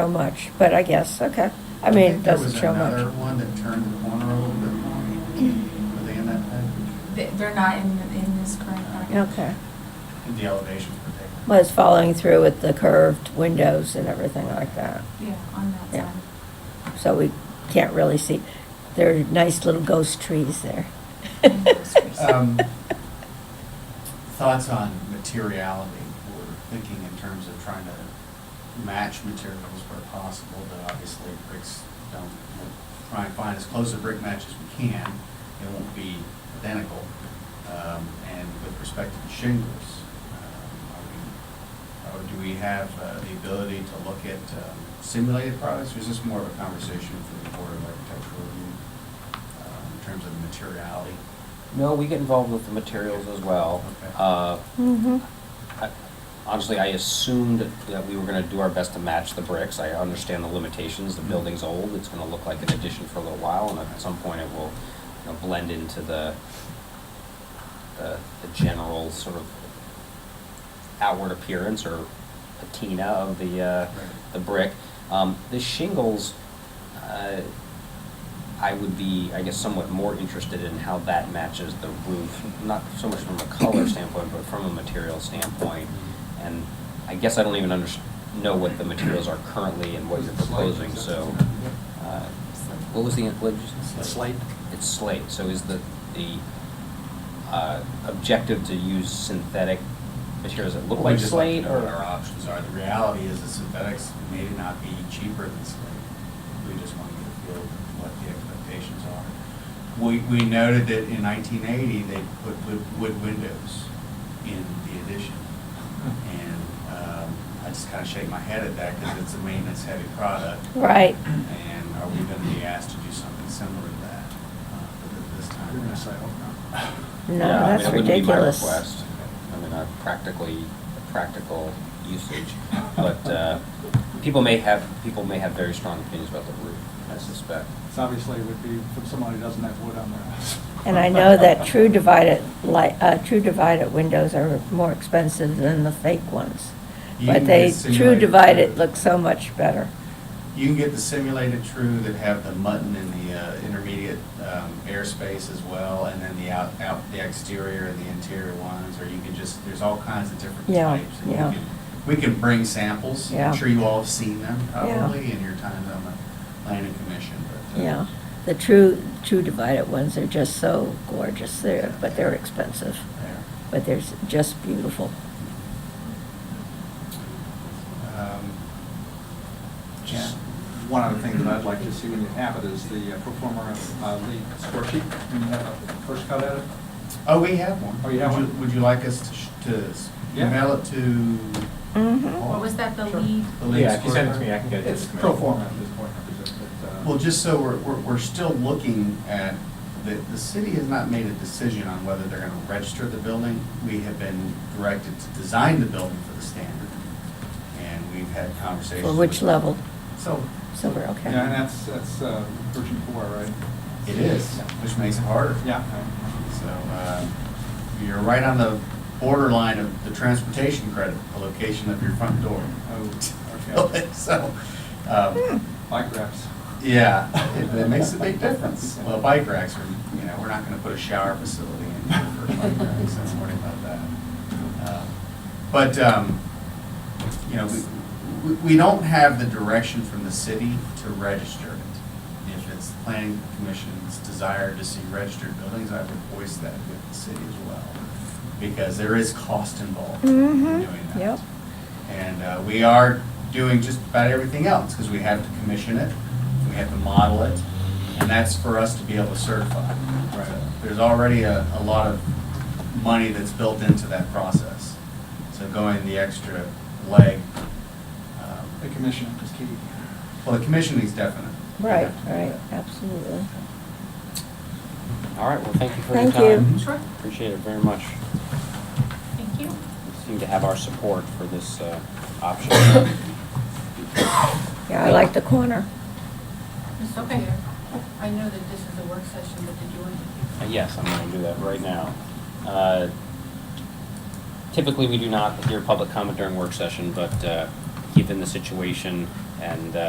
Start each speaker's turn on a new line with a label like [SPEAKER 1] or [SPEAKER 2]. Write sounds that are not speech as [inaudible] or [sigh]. [SPEAKER 1] so much, but I guess, okay. I mean, it doesn't show
[SPEAKER 2] There was
[SPEAKER 1] much.
[SPEAKER 2] another one that turned the corner a little bit more. Were they in that package?
[SPEAKER 3] They- They're not in, in this current package.
[SPEAKER 1] Okay.
[SPEAKER 2] In the elevations particularly.
[SPEAKER 1] Well, it's following through with the curved windows and everything like that.
[SPEAKER 3] Yeah, on that
[SPEAKER 1] Yeah.
[SPEAKER 3] side.
[SPEAKER 1] So we can't really see. There are nice little ghost trees there.
[SPEAKER 3] And ghost trees.
[SPEAKER 2] Um, Thoughts on materiality? We're thinking in terms of trying to match materials where possible, but obviously bricks don't, we'll try and find as close a brick match as we can. It won't be identical. Um, And with respect to the shingles, um, are we, or do we have uh, the ability to look at um, simulated products? Or is this more of a conversation for the Board of Architectural Review um, in terms of the materiality?
[SPEAKER 4] No, we get involved with the materials as well.
[SPEAKER 2] Okay.
[SPEAKER 4] Uh,
[SPEAKER 1] Mm-hmm.
[SPEAKER 4] I- Honestly, I assumed that we were gonna do our best to match the bricks. I understand the limitations, the building's old, it's gonna look like an addition for a little while, and at some point it will, you know, blend into the, the, the general sort of outward appearance or patina of the, uh, the brick. Um, the shingles, uh, I would be, I guess, somewhat more interested in how that matches the roof, not so much from a [clears throat] color standpoint, but from a material standpoint. And I guess I don't even under, know what the materials are currently and what you're proposing, so. uh, What was the, what did you? Slate. It's slate, so is the, the, uh, objective to use synthetic materials that look
[SPEAKER 2] Well, we
[SPEAKER 4] like
[SPEAKER 2] just like
[SPEAKER 4] slate
[SPEAKER 2] to
[SPEAKER 4] or?
[SPEAKER 2] know What our options are. The reality is that synthetics may not be cheaper than slate. We just want to get a feel of what the expectations are. We, we noted that in nineteen eighty, they put wood, wood windows in the addition.
[SPEAKER 4] Hmm.
[SPEAKER 2] And, um, I just kind of shake my head at that because it's a maintenance-heavy product.
[SPEAKER 1] Right.
[SPEAKER 2] And are we going to be asked to do something similar to that, uh, this time?
[SPEAKER 5] You're gonna say, "Oh,
[SPEAKER 1] No,
[SPEAKER 4] Yeah, I mean,
[SPEAKER 1] that's
[SPEAKER 4] it wouldn't be my
[SPEAKER 1] ridiculous.
[SPEAKER 4] request. I mean, uh, practically, practical usage, but uh, people may have, people may have very strong opinions about the roof, I suspect.
[SPEAKER 5] It's obviously would be from someone who doesn't have wood on their house.
[SPEAKER 1] And I know that true divided, li uh, true divided windows are more expensive than the fake ones.
[SPEAKER 2] You
[SPEAKER 1] But
[SPEAKER 2] can
[SPEAKER 1] they,
[SPEAKER 2] get
[SPEAKER 1] true
[SPEAKER 2] simulated
[SPEAKER 1] divided
[SPEAKER 2] true.
[SPEAKER 1] looks so much better.
[SPEAKER 2] You can get the simulated true that have the mutton and the uh, intermediate um, airspace as well, and then the out, out, the exterior and the interior ones, or you can just, there's all kinds of different
[SPEAKER 1] Yeah,
[SPEAKER 2] types. and you
[SPEAKER 1] yeah.
[SPEAKER 2] can- We can bring samples,
[SPEAKER 1] Yeah.
[SPEAKER 2] I'm sure you all have seen them
[SPEAKER 1] Yeah.
[SPEAKER 2] probably in your time on the planning commission, but. uh,
[SPEAKER 1] Yeah. The true, true divided ones are just so gorgeous there, but they're expensive.
[SPEAKER 2] there.
[SPEAKER 1] But they're s- just beautiful.
[SPEAKER 2] Um,
[SPEAKER 5] Just One other thing that I'd like to see when you have it is the uh, performer uh, lead score sheet. When you have a first cut at it,
[SPEAKER 2] Oh, we have one.
[SPEAKER 5] Oh, you have
[SPEAKER 2] Would
[SPEAKER 5] one?
[SPEAKER 2] Would you like us to, sh- to s-
[SPEAKER 5] Yeah.
[SPEAKER 2] mail it to?
[SPEAKER 1] Mm-hmm.
[SPEAKER 3] What was that, the
[SPEAKER 2] Sure.
[SPEAKER 3] lead?
[SPEAKER 2] The lead
[SPEAKER 6] Yeah, if you send it to
[SPEAKER 2] scorecard?
[SPEAKER 6] me, I can get it. to
[SPEAKER 5] it's
[SPEAKER 6] the
[SPEAKER 5] pro
[SPEAKER 6] committee.
[SPEAKER 5] forma at this point, I presume, but, uh,
[SPEAKER 2] Well, just so we're, we're, we're still looking at, the, the city has not made a decision on whether they're gonna register the building. We have been directed to design the building for the standard, and we've had conversations.
[SPEAKER 1] For which
[SPEAKER 2] with-
[SPEAKER 1] level?
[SPEAKER 2] So,
[SPEAKER 1] Silver, okay.
[SPEAKER 5] Yeah, and that's, that's uh, version four, right?
[SPEAKER 2] it is, which makes it harder.
[SPEAKER 5] Yeah.
[SPEAKER 2] So, uh, you're right on the borderline of the transportation credit, the location of your front door.
[SPEAKER 5] Oh, okay.
[SPEAKER 2] [laughs] So, um,
[SPEAKER 1] Hmm.
[SPEAKER 5] Bike racks.
[SPEAKER 2] Yeah, [laughs] it, it makes a big difference. Well, bike racks are, you know, we're not gonna put a shower facility in here for bike racks, I'm worried about that. Uh, But, um, you know, we, we, we don't have the direction from the city to register it. If it's the planning commission's desire to see registered buildings, I would voice that with the city as well. Because there is cost involved in
[SPEAKER 1] Mhm,
[SPEAKER 2] doing that.
[SPEAKER 1] yep.
[SPEAKER 2] And uh, we are doing just about everything else, because we have to commission it, we have to model it, and that's for us to be able to certify. There's already a, a lot of money that's built into that process. So going the extra leg, um,
[SPEAKER 5] The commission is key.
[SPEAKER 2] well, the commissioning is definite.
[SPEAKER 1] Right, right, absolutely.
[SPEAKER 4] All right, well, thank you for your
[SPEAKER 1] Thank you.
[SPEAKER 4] time.
[SPEAKER 3] Sure,
[SPEAKER 4] Appreciate it very much.
[SPEAKER 3] thank you.
[SPEAKER 4] You seem to have our support for this uh, option.
[SPEAKER 1] Yeah, I like the corner.
[SPEAKER 7] It's okay. I know that this is a work session, but did you want to?
[SPEAKER 4] Uh, Yes, I'm going to do that right now. Uh, Typically, we do not hear public comment during work session, but uh, given the situation And, uh,